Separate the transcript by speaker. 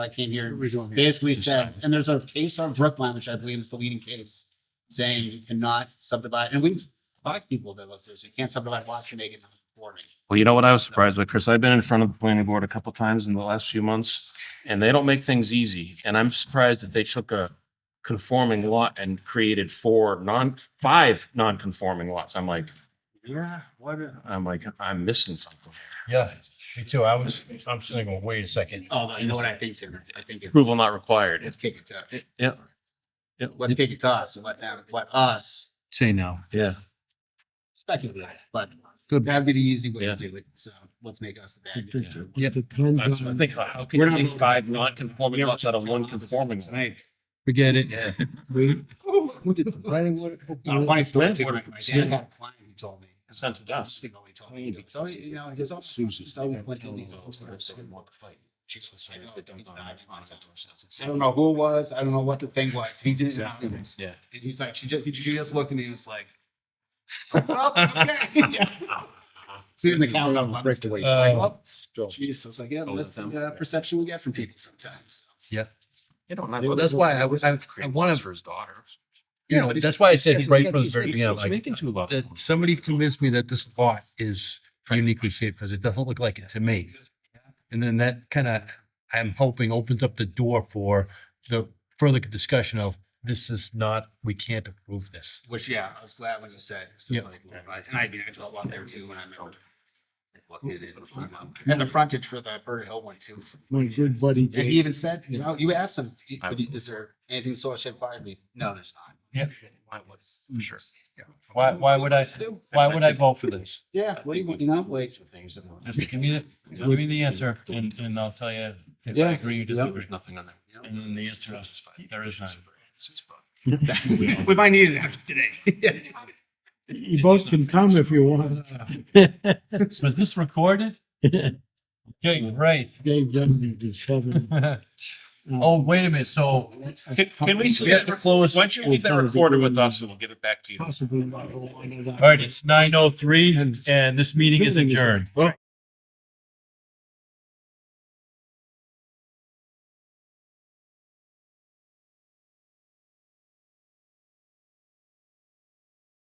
Speaker 1: I came here
Speaker 2: Originally.
Speaker 1: basically said, and there's a case on Brookline, which I believe is the leading case, saying you cannot subdivide, and we've talked to people that look this, you can't subdivide lots you make it non-conforming.
Speaker 3: Well, you know what I was surprised with, Chris? I've been in front of the planning board a couple times in the last few months, and they don't make things easy. And I'm surprised that they took a conforming lot and created four non, five non-conforming lots. I'm like, yeah, what? I'm like, I'm missing something.
Speaker 4: Yeah, me too. I was, I'm sitting going, wait a second.
Speaker 1: Although, Oh, you know what I think, Tim, I think it's,
Speaker 3: Approval not required.
Speaker 1: let's
Speaker 3: It's,
Speaker 1: kick it to,
Speaker 3: yeah. Yeah,
Speaker 1: let's kick it to us and let them, let us
Speaker 2: Say no.
Speaker 3: yeah.
Speaker 1: speculate, but
Speaker 2: Good.
Speaker 1: that'd be the easy way
Speaker 3: Yeah.
Speaker 1: to do it, so let's make us the bad. guy.
Speaker 2: Yeah.
Speaker 3: I was- I think, how can you make five non-conforming lots out of one conforming? lot?
Speaker 2: Forget it.
Speaker 3: Yeah.
Speaker 5: Who did the planning board?
Speaker 1: Uh, funny story too, my my
Speaker 3: Yeah.
Speaker 1: dad had a client who told me.
Speaker 3: Sent to us.
Speaker 1: He only told me, so, you know, his office, his office went to these officers. She was like, "Oh, he's not even on top of us." I don't know who it was. I don't know what the thing was. He didn't know. And
Speaker 3: Yeah.
Speaker 1: he's like, she just, she just looked at me and was like, well, okay. Susan, the count on
Speaker 5: Break the weight.
Speaker 4: Uh,
Speaker 1: Jesus, like, yeah,
Speaker 3: Oh,
Speaker 1: that's
Speaker 3: the-
Speaker 1: the uh, perception we get from people sometimes.
Speaker 3: You don't
Speaker 4: Well, that's why I was, I, I want to,
Speaker 3: for his daughter.
Speaker 4: you know, that's why I said right from the very beginning,
Speaker 3: He's
Speaker 4: like,
Speaker 3: making two lots.
Speaker 4: that somebody convinced me that this lot is uniquely shaped because it doesn't look like it to me. And then that kind of, I'm hoping opens up the door for the further discussion of this is not, we can't approve this.
Speaker 1: Which, yeah, I was glad when you said, so it's
Speaker 4: Yeah.
Speaker 1: like, well, I- and I, I felt a lot there too when I remembered. And the frontage for the Bird Hill one too. It's-
Speaker 5: My good buddy
Speaker 1: And he
Speaker 5: Dave,
Speaker 1: even said, you know, you asked him, "Do- would you- is there anything soil shed by me? No, there's not.
Speaker 4: Yeah.
Speaker 3: Sure.
Speaker 4: Why, why would I, why would I vote for this?
Speaker 1: Yeah, what do you, want, you know, like,
Speaker 4: Just give me, the give me the answer and, and I'll tell you if
Speaker 1: Yeah.
Speaker 4: I agree or disagree.
Speaker 3: nothing on that.
Speaker 4: And then the answer is, there is none.
Speaker 1: we might need it after today.
Speaker 5: you both can come if you want.
Speaker 4: Was this recorded? Okay, right.
Speaker 5: Dave doesn't just have it.
Speaker 4: Oh, wait a minute, so
Speaker 3: Can, can we,
Speaker 4: we have to close.
Speaker 3: why don't you leave that recorder with us and we'll give it back to you?
Speaker 5: Possibly. not a lot of that.
Speaker 4: All right, it's nine oh three and this meeting is adjourned.